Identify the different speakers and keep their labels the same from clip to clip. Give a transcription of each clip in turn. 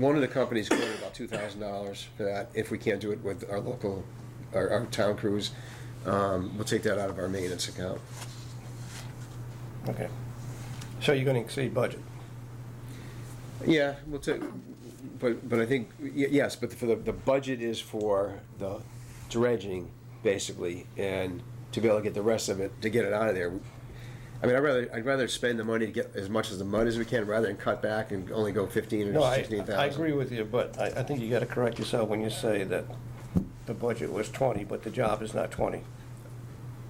Speaker 1: One of the companies quoted about two thousand dollars for that, if we can't do it with our local, our, our town crews, um, we'll take that out of our maintenance account.
Speaker 2: Okay. So you're gonna exceed budget?
Speaker 1: Yeah, we'll take, but, but I think, y- yes, but for the, the budget is for the dredging, basically, and to be able to get the rest of it, to get it out of there. I mean, I'd rather, I'd rather spend the money to get as much as the mud as we can, rather than cut back and only go fifteen
Speaker 2: No,
Speaker 1: or
Speaker 2: I,
Speaker 1: sixteen thousand.
Speaker 2: I agree with you, but I, I think you gotta correct yourself when you say that the budget was twenty, but the job is not twenty.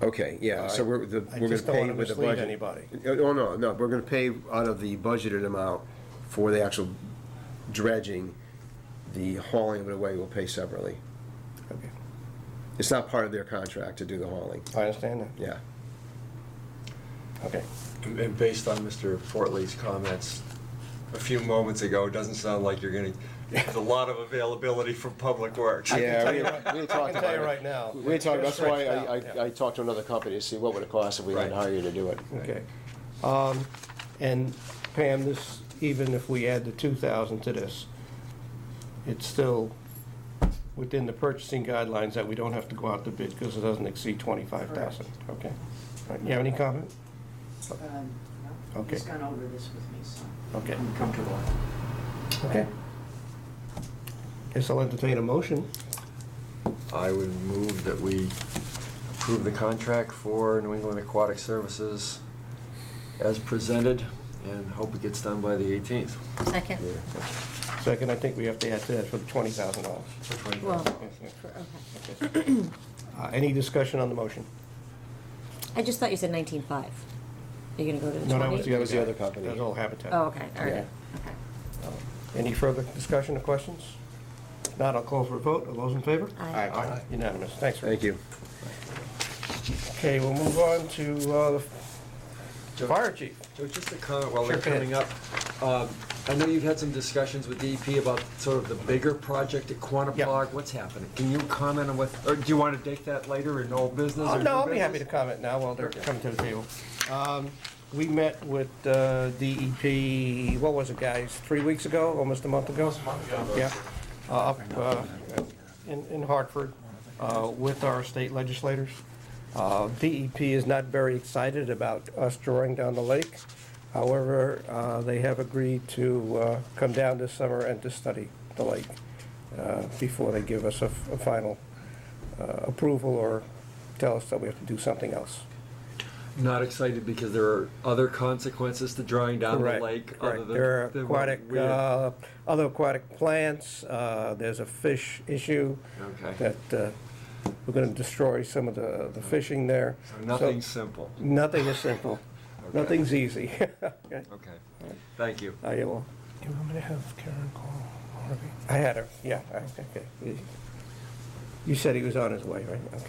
Speaker 1: Okay, yeah, so we're, the-
Speaker 2: I
Speaker 1: we're gonna
Speaker 2: just don't
Speaker 1: pay
Speaker 2: wanna
Speaker 1: with the budget.
Speaker 2: mislead anybody.
Speaker 1: Oh, no, no, we're gonna pay out of the budgeted amount for the actual dredging, the hauling of it away, we'll pay separately.
Speaker 2: Okay.
Speaker 1: It's not part of their contract to do the hauling,
Speaker 2: I understand that,
Speaker 1: yeah.
Speaker 2: okay.
Speaker 3: And and based on Mr. Fortley's comments a few moments ago, it doesn't sound like you're gonna, there's a lot of availability from Public Works.
Speaker 1: Yeah,
Speaker 2: tell
Speaker 1: we,
Speaker 2: you
Speaker 1: we
Speaker 2: right-
Speaker 1: didn't talk
Speaker 2: I can
Speaker 1: about
Speaker 2: tell
Speaker 1: it.
Speaker 2: you right now,
Speaker 1: We didn't talk,
Speaker 2: it's
Speaker 1: that's why
Speaker 2: stretched
Speaker 1: I,
Speaker 2: out,
Speaker 1: I, I talked to another company to see what would it cost if we had to
Speaker 3: Right.
Speaker 1: hire you to do it.
Speaker 2: Okay. Um, And Pam, this, even if we add the 2,000 to this, it's still within the purchasing guidelines that we don't have to go out to bid because it doesn't exceed 25,000. Okay. All right, You have any comment?
Speaker 4: Um, no,
Speaker 2: Okay.
Speaker 4: He's gone over this with me, so
Speaker 2: Okay.
Speaker 4: I'm comfortable.
Speaker 2: Okay. Guess I'll entertain a motion.
Speaker 3: I would move that we approve the contract for New England Aquatic Services as presented, and hope it gets done by the 18th.
Speaker 5: Second,
Speaker 2: Second, I think we have to add to that for the $20,000.
Speaker 5: well,
Speaker 2: Yes, yeah.
Speaker 5: for- okay.
Speaker 2: Uh, Any discussion on the motion?
Speaker 5: I just thought you said nineteen-five. You're gonna go to the
Speaker 2: No,
Speaker 5: twenty?
Speaker 2: that was the other.
Speaker 1: was the
Speaker 2: guy.
Speaker 1: other company.
Speaker 2: That was all Habitat. Uh,
Speaker 5: Oh, okay, all
Speaker 1: Yeah.
Speaker 5: right, okay.
Speaker 2: Any further discussion or questions? If Not, I'll call for a vote. All those in favor?
Speaker 5: Aye.
Speaker 2: Aye. Unanimous. Thanks, Rick.
Speaker 1: Thank you.
Speaker 2: Okay, we'll move on to uh, the fire chief.
Speaker 3: Joe, just a comment while they're
Speaker 2: Sure, go ahead.
Speaker 3: coming up. Um, I know you've had some discussions with DEP about sort of the bigger project at Quantapug. What's happening? Can you comment on what, or do you want to take that later in old business?
Speaker 2: Oh, no,
Speaker 3: or new
Speaker 2: I'll be happy to
Speaker 3: business?
Speaker 2: comment now while they're coming to the table. Um, We met with uh, DEP, what was it, guys, three weeks ago, almost a month ago? Yeah, uh, up uh, in in Hartford uh, with our state legislators. Uh, DEP is not very excited about us drawing down the lake. However, uh, they have agreed to uh, come down this summer and to study the lake uh, before they give us a f- a final uh, approval or tell us that we have to do something else.
Speaker 3: Not excited because there are other consequences to drawing down the
Speaker 2: Correct,
Speaker 3: lake
Speaker 2: correct.
Speaker 3: other than.
Speaker 2: There are
Speaker 3: than what
Speaker 2: aquatic,
Speaker 3: we-
Speaker 2: uh, other aquatic plants, uh, there's a fish issue
Speaker 3: Okay,
Speaker 2: that uh, we're going to destroy some of the the fishing there.
Speaker 3: so nothing simple.
Speaker 2: Nothing is simple.
Speaker 3: Okay.
Speaker 2: Nothing's easy. Okay.
Speaker 3: Okay, thank you.
Speaker 2: Oh, yeah, well,
Speaker 6: Do you want me to have Karen call Harvey?
Speaker 2: I had her, yeah, I- okay. You said he was on his way, right? Okay.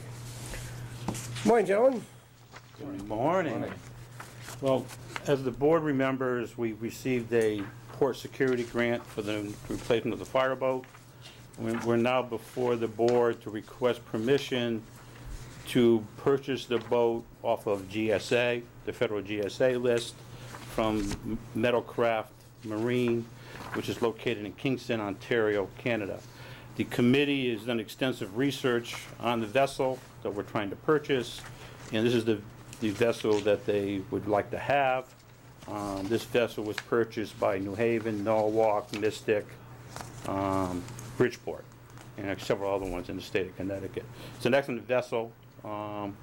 Speaker 2: Morning, gentlemen.
Speaker 7: Good morning. Well, as the board remembers, we received a port security grant for the replacement of the fireboat. We- We're now before the board to request permission to purchase the boat off of GSA, the federal GSA list, from Metalcraft Marine, which is located in Kingston, Ontario, Canada. The committee has done extensive research on the vessel that we're trying to purchase, and this is the, the vessel that they would like to have. Um, this vessel was purchased by New Haven, Norwalk, Mystic, um, Bridgeport, and several other ones in the state of Connecticut. It's an excellent vessel. Um,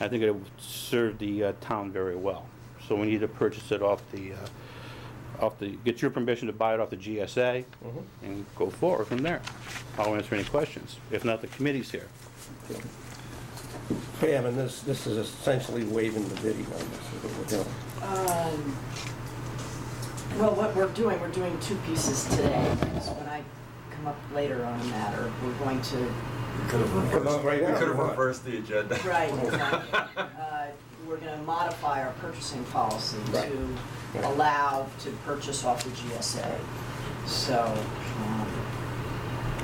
Speaker 7: I think it would serve the uh, town very well. So we need to purchase it off the, uh, off the, get your permission to buy it off the GSA and go forward from there. I'll answer any questions. If not, the committee's here.
Speaker 2: Pam, and this, this is essentially waiving the bidding on this.
Speaker 4: Well, what we're doing, we're doing two pieces today, because when I come up later on a matter, we're going to,
Speaker 3: We could have
Speaker 2: Come on,
Speaker 3: reversed-
Speaker 2: right
Speaker 3: we
Speaker 2: now.
Speaker 3: could have reversed the agenda.
Speaker 4: right, uh, we're going to modify our purchasing policy to
Speaker 2: Right.
Speaker 4: allow to purchase off the GSA. So, um,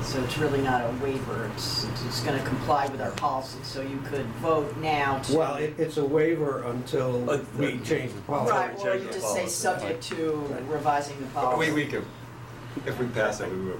Speaker 4: so it's really not a waiver, it's, it's going to comply with our policy, so you could vote now to.
Speaker 2: Well, it, it's a waiver until
Speaker 3: Uh,
Speaker 2: we change the policy.
Speaker 4: Right, or
Speaker 3: change
Speaker 4: you
Speaker 3: the
Speaker 4: just say
Speaker 3: policy.
Speaker 4: subject to revising the policy.
Speaker 3: We, we could,
Speaker 8: If we pass it, we would